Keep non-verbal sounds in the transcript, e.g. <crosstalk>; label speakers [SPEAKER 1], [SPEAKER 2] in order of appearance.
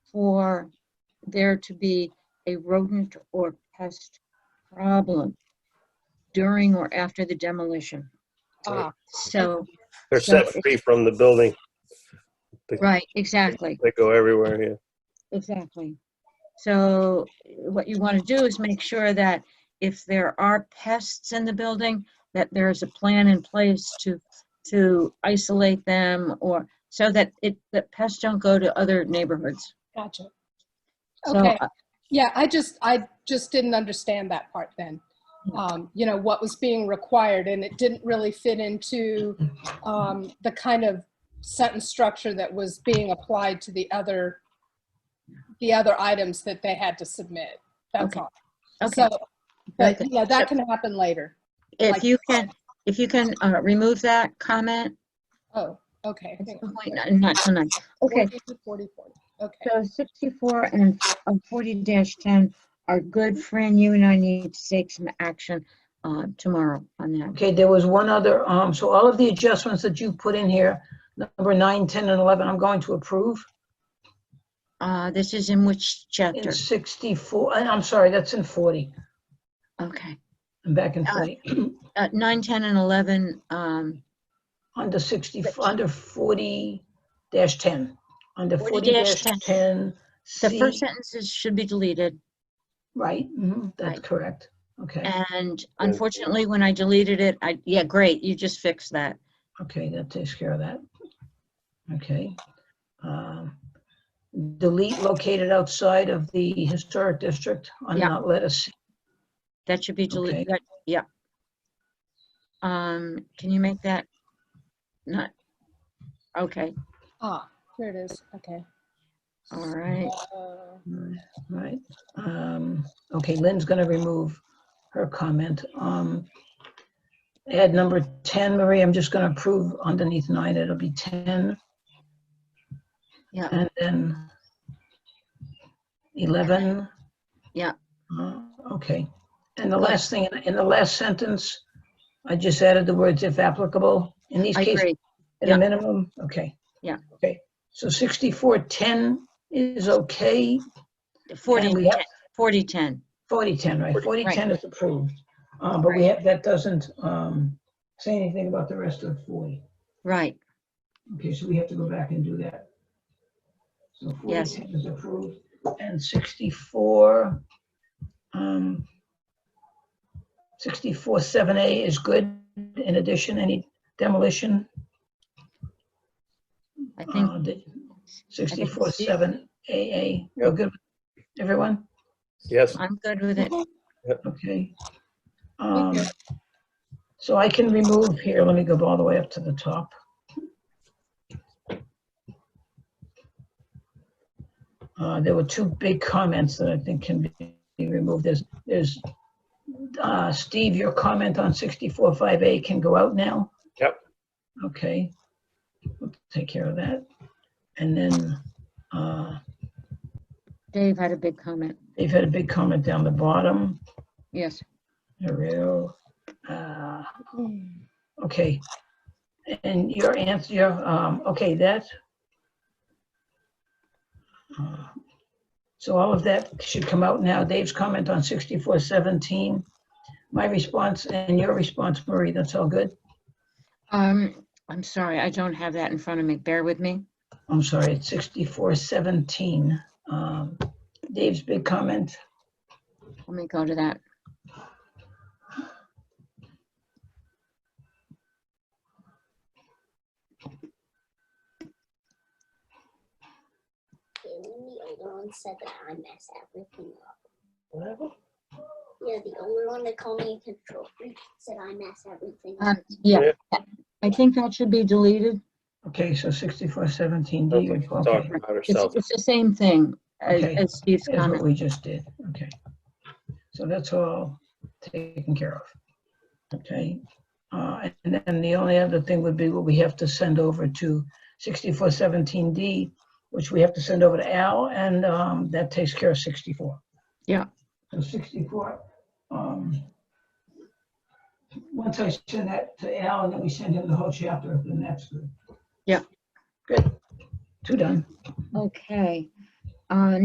[SPEAKER 1] are there to be a rodent or pest problem during or after the demolition.
[SPEAKER 2] Ah.
[SPEAKER 1] So,
[SPEAKER 3] They're set
[SPEAKER 1] So-
[SPEAKER 3] free from the building.
[SPEAKER 1] right, exactly,
[SPEAKER 3] They go everywhere here.
[SPEAKER 1] exactly. So what you want to do is make sure that if there are pests in the building, that there is a plan in place to, to isolate them or so that it, that pests don't go to other neighborhoods.
[SPEAKER 2] Gotcha.
[SPEAKER 1] So uh,
[SPEAKER 2] Okay. Yeah, I just, I just didn't understand that part then.
[SPEAKER 1] Hmm.
[SPEAKER 2] Um, you know, what was being required and it didn't really fit into, um, the kind of sentence structure that was being applied to the other, the other items that they had to submit. That's
[SPEAKER 1] Okay.
[SPEAKER 2] all.
[SPEAKER 1] Okay,
[SPEAKER 2] So, but
[SPEAKER 1] Okay.
[SPEAKER 2] yeah, that can happen later.
[SPEAKER 1] if
[SPEAKER 2] like-
[SPEAKER 1] you can, if you can uh, remove that comment,
[SPEAKER 2] Oh, okay. I
[SPEAKER 1] at
[SPEAKER 2] think-
[SPEAKER 1] some point, not- not tonight. Okay,
[SPEAKER 2] 40, 40, 40. Okay,
[SPEAKER 1] so 64 and uh, 40-10 are good. Fran, you and I need to take some action uh, tomorrow on that.
[SPEAKER 4] Okay, there was one other, um, so all of the adjustments that you put in here, number nine, 10, and 11, I'm going to approve.
[SPEAKER 1] Uh, This is in which
[SPEAKER 4] In
[SPEAKER 1] chapter?
[SPEAKER 4] 64, and I'm sorry, that's in 40.
[SPEAKER 1] Okay.
[SPEAKER 4] I'm back in
[SPEAKER 1] Uh,
[SPEAKER 4] 40.
[SPEAKER 1] Uh, 9, 10, and 11, um,
[SPEAKER 4] <clears throat> Under 60, under 40 dash 10, under 40 dash
[SPEAKER 1] 40-10.
[SPEAKER 4] 10.
[SPEAKER 1] the first
[SPEAKER 4] C-
[SPEAKER 1] sentences should be deleted.
[SPEAKER 4] Right, mhm, that's
[SPEAKER 1] Right.
[SPEAKER 4] correct. Okay,
[SPEAKER 1] And unfortunately, when I deleted it, I, yeah, great, you just fixed that.
[SPEAKER 4] okay, that takes care of that. Okay. Um, Delete located outside of the historic district on
[SPEAKER 1] Yeah.
[SPEAKER 4] not let us,
[SPEAKER 1] That should be deleted,
[SPEAKER 4] Okay.
[SPEAKER 1] that- yeah. Um, can you make that? Not, okay,
[SPEAKER 2] ah, here it is, okay.
[SPEAKER 1] all right.
[SPEAKER 2] Uh,
[SPEAKER 4] Right, Right. Um, Okay, Lynn's going to remove her comment. Um, Add number 10, Marie, I'm just going to approve underneath nine, it'll be 10,
[SPEAKER 1] Yeah,
[SPEAKER 4] and then 11.
[SPEAKER 1] Yeah.
[SPEAKER 4] Uh, Okay. And the last thing, in the last sentence, I just added the words if applicable. In these
[SPEAKER 1] I
[SPEAKER 4] cases,
[SPEAKER 1] agree.
[SPEAKER 4] at
[SPEAKER 1] Yeah.
[SPEAKER 4] a minimum, okay.
[SPEAKER 1] Yeah.
[SPEAKER 4] Okay, so 6410 is okay. and
[SPEAKER 1] 40,
[SPEAKER 4] we have-
[SPEAKER 1] 40, 10.
[SPEAKER 4] 4010, right, 4010 is approved, Uh, but we have, that doesn't um, say anything about the rest of 40.
[SPEAKER 1] Right,
[SPEAKER 4] Okay, so we have to go back and do that. So
[SPEAKER 1] Yes.
[SPEAKER 4] 4010 is approved, and 64, um, 647A is good. In addition, any demolition? Uh,
[SPEAKER 1] I think,
[SPEAKER 4] 647AA, you're good, with everyone?
[SPEAKER 3] Yes,
[SPEAKER 1] I'm good with it.
[SPEAKER 4] Okay. Um, So I can remove here, let me go all the way up to the top. Uh, There were two big comments that I think can be removed. There's, there's, uh, Steve, your comment on 64.5A can go out now?
[SPEAKER 3] Yep.
[SPEAKER 4] Okay, we'll take care of that. And then, uh,
[SPEAKER 1] Dave had a big comment.
[SPEAKER 4] they've had a big comment down the bottom.
[SPEAKER 1] Yes,
[SPEAKER 4] Arrow, uh,
[SPEAKER 2] hmm.
[SPEAKER 4] Okay. And your answer, your, um, okay, that. uh, So all of that should come out now. Dave's comment on 6417. My response and your response, Marie, that's all good?
[SPEAKER 1] um, I'm sorry, I don't have that in front of me. Bear with me.
[SPEAKER 4] I'm sorry, it's 6417. Um, Dave's big comment,
[SPEAKER 1] Let me go to that.
[SPEAKER 5] Jamie, you're the one said that I mess everything up. You're the only one that called me a control freak, said I mess everything up.
[SPEAKER 1] Um, Yeah,
[SPEAKER 3] Yeah.
[SPEAKER 1] I think that should be deleted.
[SPEAKER 4] Okay, so 6417,
[SPEAKER 3] sounds like
[SPEAKER 4] Dave,
[SPEAKER 3] she's talking about herself.
[SPEAKER 1] It's, it's the same thing as
[SPEAKER 4] Okay.
[SPEAKER 1] as Steve's
[SPEAKER 4] is what
[SPEAKER 1] comment.
[SPEAKER 4] we just did. Okay. So that's all taken care of. Okay. Uh, And then the only other thing would be what we have to send over to 6417D, which we have to send over to Al, and um, that takes care of 64.
[SPEAKER 1] Yeah.
[SPEAKER 4] So 64, um, once I send that to Al, and then we send him the whole chapter, then that's good.
[SPEAKER 1] Yeah.
[SPEAKER 4] Good. Two done.
[SPEAKER 1] Okay. Uh,